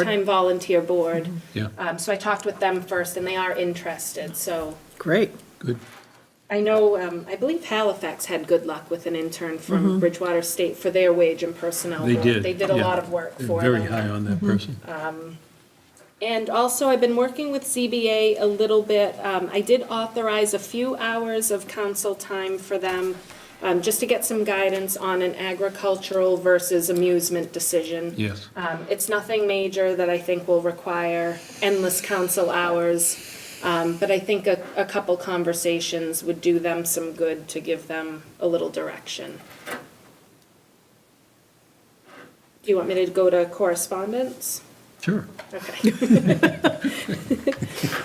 time volunteer board. Yeah. Um, So I talked with them first, and they are interested, so Great. Good. I know, um, I believe Halifax had good luck with an intern from Bridgewater State for their wage and personnel. Mm-hmm. They board. did. uh, They did a yeah. lot of work They're for them. Mm-hmm. Uh, Very high on that person. And also, I've been working with CBA a little bit. Um, I did authorize a few hours of council time for them, um, just to get some guidance on an agricultural versus amusement decision. Yes. Um, It's nothing major that I think will require endless council hours, um, but I think a, a couple conversations would do them some good to give them a little direction. Do you want me to go to correspondence? Sure. Okay.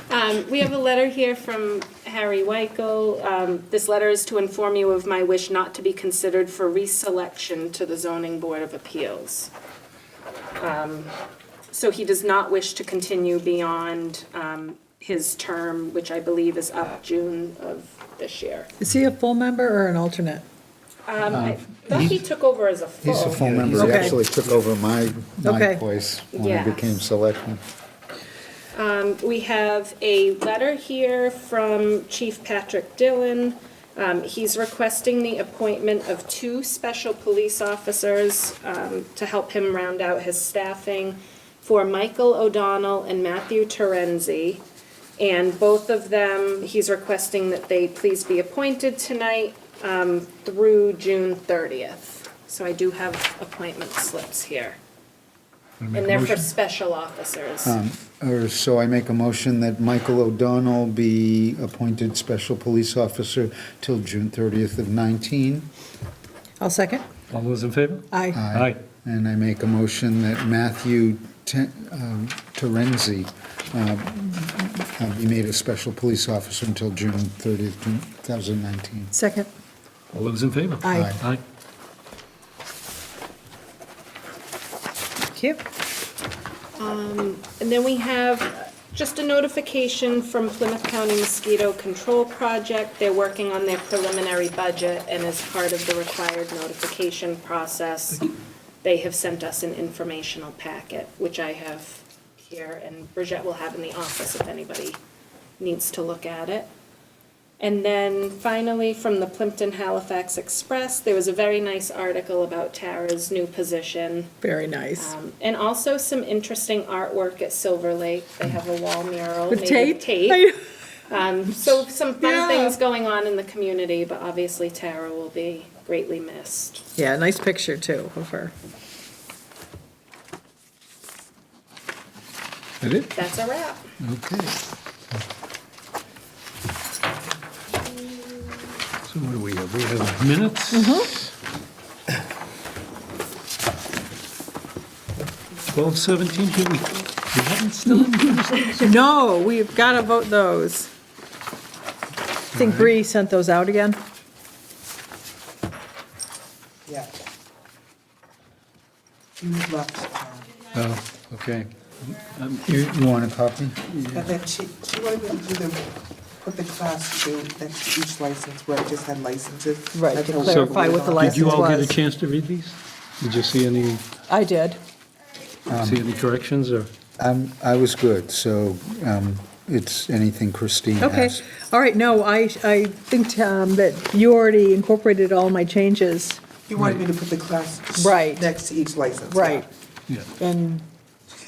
Um, We have a letter here from Harry Wyko. Um, This letter is to inform you of my wish not to be considered for reselection to the Zoning Board of Appeals. Um, So he does not wish to continue beyond um, his term, which I believe is up June of this year. Is he a full member or an alternate? Um, I thought he took over as a full. He's a full member, Oh. he Okay. actually took over my, my Okay. place when I became Yes. selectman. We have a letter here from Chief Patrick Dillon. Um, He's requesting the appointment of two special police officers um, to help him round out his staffing for Michael O'Donnell and Matthew Terenzi. And both of them, he's requesting that they please be appointed tonight um, through June 30th. So I do have appointment slips here. And they're for special officers. Or so I make a motion that Michael O'Donnell be appointed special police officer till June 30th of 19. I'll second. All those in favor? Aye. Aye. And I make a motion that Matthew Te- um, Terenzi uh, uh, be made a special police officer until June 30th, 2019. Second. All those in favor? Aye. Aye. Thank you. And then we have uh, just a notification from Plymouth County Mosquito Control Project. They're working on their preliminary budget, and as part of the required notification process, they have sent us an informational packet, which I have here, and Bridget will have in the office if anybody needs to look at it. And then finally, from the Plimpton Halifax Express, there was a very nice article about Tara's new position. Very nice. Um, And also some interesting artwork at Silver Lake. They have a wall mural With made tape? with tape. I- Um, So some fun Yeah. things going on in the community, but obviously Tara will be greatly missed. Yeah, nice picture too of her. That it? That's a wrap. Okay. So what do we have? We have minutes? Twelve seventeen, do we, we haven't still, No, we've got to vote those. I think Bree sent those out again. Yeah. You've left town. oh, okay. You you want a copy? But that she, she wanted me to do the, put the class to do next to each license where I just had licenses. Right, Like to how- clarify what the Did you license all get a was. chance to read these? Did you see any, um, I did. see any corrections or? I'm- I was good, so um, it's anything Christine Okay. has. All right, no, I, I think, Tom, that you already incorporated all my changes. You wanted me to put the class. Right. Next to each license. yeah. Right. Yeah. And,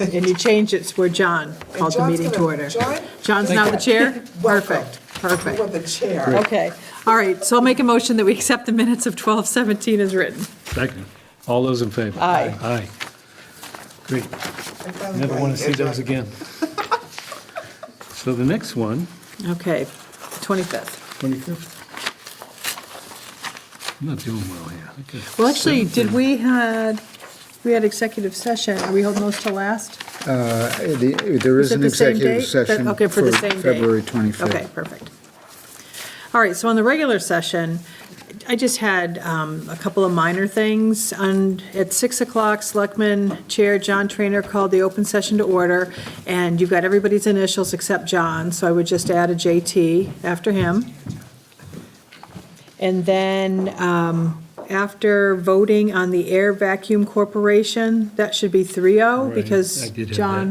and you changed it where John called the John's meeting to gonna- order. John? John's now the chair? Welcome. Perfect, perfect. You were the chair. Okay, all right, so I'll make a motion that we accept the minutes of 12:17 as written. Second. All those in favor? Aye. Aye. Great. I finally Never got want it. to see those again. So the next one, Okay, 25th. 25th. I'm not doing well here. Okay. Well, actually, Seventh did we had, we had executive session, are we holding those till last? Uh, the- There Is is it an the same executive date? session Okay, for for the same date. February 25th. Okay, perfect. All right, so on the regular session, I just had um, a couple of minor things. On, at 6 o'clock, Selectman Chair John Trainer called the open session to order, and you've got everybody's initials except John, so I would just add a JT after him. And then um, after voting on the Air Vacuum Corporation, that should be 3-0, Right, because I did have that. John